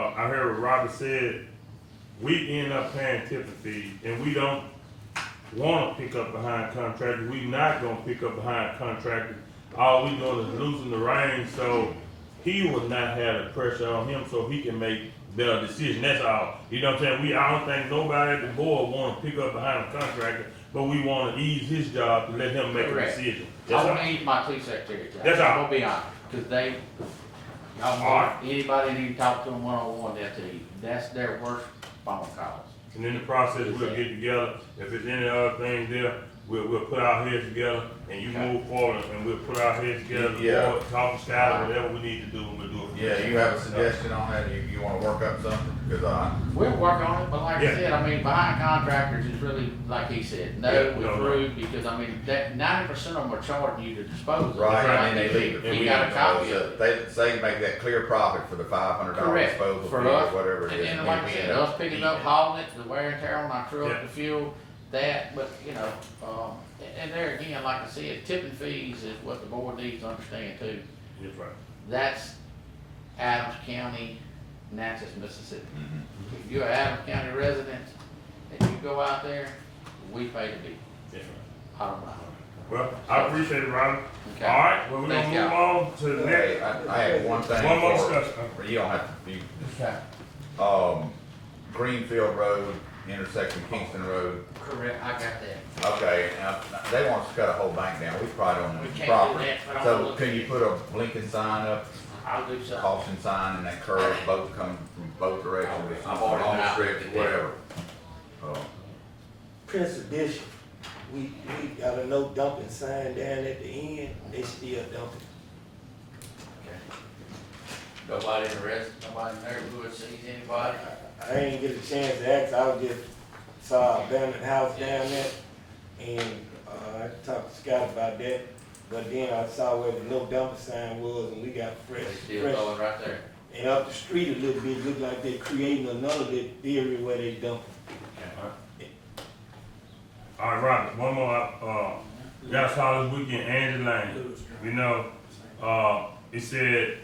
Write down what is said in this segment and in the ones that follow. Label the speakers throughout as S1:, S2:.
S1: Uh, I heard what Robert said, we end up paying tipping fees, and we don't wanna pick up behind contractors, we not gonna pick up behind contractors. All we doing is losing the reins, so he will not have the pressure on him, so he can make better decisions, that's all. You know what I'm saying, we, I don't think nobody at the board wanna pick up behind a contractor, but we wanna ease his job to let him make a
S2: Correct.
S1: decision. That's
S2: I
S1: all.
S2: wanna eat my two secretaries. out.
S1: That's all.
S2: I'm gonna be honest, cause they, y'all,
S1: Alright.
S2: want- anybody that you talk to them one-on-one, that's a, that's their worst phone calls.
S1: And in the process, we'll get together, if there's any other things there, we'll, we'll put our heads together, and you
S2: Okay.
S1: move forward, and we'll put our heads together,
S3: Yeah.
S1: we'll talk to Skylar, whatever we need to do, we'll do it.
S3: Yeah, you have a suggestion on that, you, you wanna work up something, cause uh, I,
S2: We'll work on it, but like I
S1: Yeah.
S2: said, I mean, behind contractors is really, like he said, no,
S1: Yeah,
S2: we
S1: no, no.
S2: approved, because I mean, that ninety percent of them are charging you to dispose of. it.
S3: right,
S2: Like
S3: and then
S2: you
S3: they leave
S2: said,
S3: it. Oh,
S2: We got a copy of it.
S3: They, they can make that clear profit for the five hundred dollar
S2: Correct.
S3: disposal fee
S2: For
S3: or
S2: us,
S3: whatever it
S2: And
S3: is.
S2: then
S3: and
S2: like
S3: we
S2: I said,
S3: end up
S2: us picking
S3: eating
S2: up,
S3: it.
S2: hauling it, the wear and tear on our
S1: Yeah.
S2: truck, the fuel, that, but, you know, um, and- and there again, like I said, tipping fees is what the board needs to understand too.
S1: That's right.
S2: That's Adams County, Natchez, Mississippi.
S3: Mhm.
S2: If you're an Adams County resident and you go out there, we pay the bill,
S1: That's right.
S2: bottom line.
S1: Well, I appreciate it, Robin. All
S2: Okay.
S1: right, well, we're gonna
S2: Thank
S1: move on to the
S3: Hey,
S1: next,
S3: I, I have one thing.
S1: one more
S3: for-
S1: discussion.
S3: You don't have to, you
S2: Okay.
S3: um, Greenfield Road, intersection Kingston Road,
S2: Correct, I got that.
S3: okay, now, they want us to cut a whole bank down, we probably don't
S2: We
S3: want
S2: can't
S3: to
S2: do
S3: property.
S2: that, but I'm
S3: So
S2: looking-
S3: can you put a blinking sign up,
S2: I'll do something.
S3: caution sign and that curve, both come from both directions, it's
S2: I've already been
S3: long
S2: out
S3: stretch,
S2: with it.
S3: whatever. Oh,
S4: Prince Edition, we, we got a no dumping sign down at the end, they still dumping.
S2: Nobody in the rest, nobody in there who sees anybody.
S4: I ain't get a chance to ask, I was just, saw an abandoned house down there, and, uh, I talked to Scott about that, but then I saw where the no dumping sign was, and we got fresh,
S2: They still
S4: fresh.
S2: going right there.
S4: And up the street a little bit, looked like they're creating another little area where they dump.
S1: All right, Robert, one more, uh, y'all saw this weekend, Andy Lane, you know, uh, it said,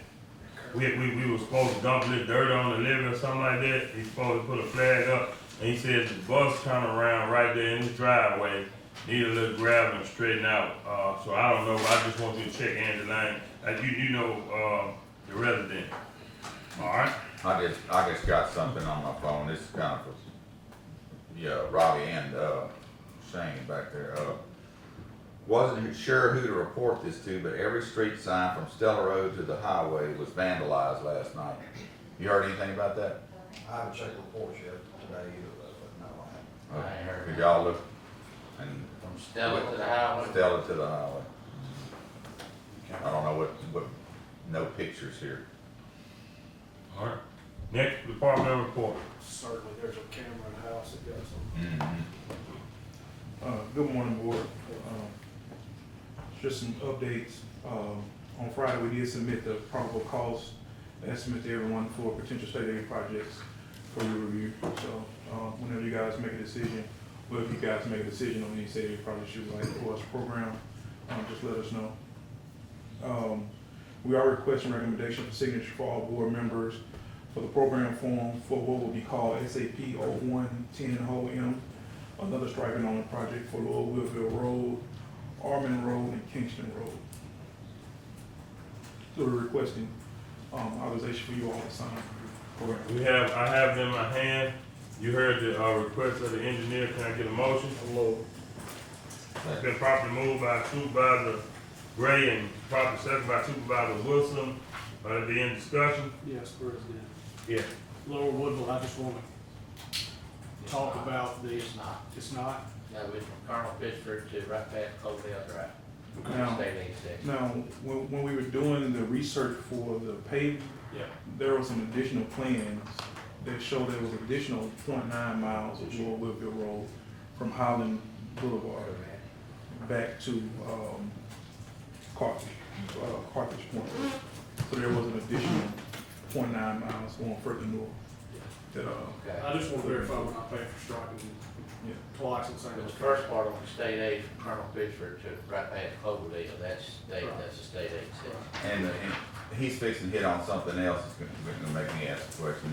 S1: we, we, we were supposed to dump a little dirt on the levee or something like that, he supposed to put a flag up, and he said the bus turned around right there in his driveway, need a little gravel and straighten out, uh, so I don't know, I just want you to check Andy Lane, like, you, you know, uh, the resident, all right?
S3: I just, I just got something on my phone, this is kind of, a- yeah, Robbie and, uh, Shane back there, uh, wasn't sure who to report this to, but every street sign from Stella Road to the highway was vandalized last night. You heard anything about that?
S5: I haven't checked the reports yet today either, but no, I haven't.
S2: I heard.
S3: Did y'all look, and
S2: From Stella to the highway.
S3: Stella to the highway? I don't know what, what, no pictures here.
S1: All right. Next, department report.
S6: certainly there's a camera in the house that got some
S7: Uh, Good morning, Board. Um, Just some updates. Um, On Friday, we did submit the probable cost estimate to everyone for potential state aid projects for your review. So uh, whenever you guys make a decision, or if you guys make a decision on any state aid projects you would like for us to program, um, just let us know. Um, We are requesting recommendation for signature for all board members for the program form for what will be called SAP 0110-M another striping on the project for Lower Willville Road, Armin Road, and Kingston Road. So we're requesting, um, authorization for you all to sign. Correct.
S1: We have, I have it in my hand. You heard the, uh, request of the engineer. Can I get a motion? It's been properly moved by Supervisor Gray and properly seconded by Supervisor Wilson. Uh, it be in discussion?
S8: Yes, President.
S1: Yeah.
S8: Lower Woodville, I just wanna talk about the,
S2: It's not,
S8: it's not,
S2: no, it's from Colonel Pittsburgh to right past Colville Drive.
S7: Now-
S2: State aid section.
S7: Now, when, when we were doing the research for the paving,
S8: Yeah.
S7: there were some additional plans that showed there was additional 0.9 miles of Lower Woodville Road from Highland Boulevard back to, um, Carthage, uh, Carthage Point. So there was an additional 0.9 miles going further north that, uh,
S2: Okay.
S8: I just wanna verify when I pay for striking
S7: Yeah.
S8: twice and saying
S2: The
S8: it's
S2: first part on the state aid from Colonel Pittsburgh to right past Cloverdale, that's state, that's a state aid section.
S3: uh, And, and he's fixing to hit on something else that's gonna, gonna make me ask a question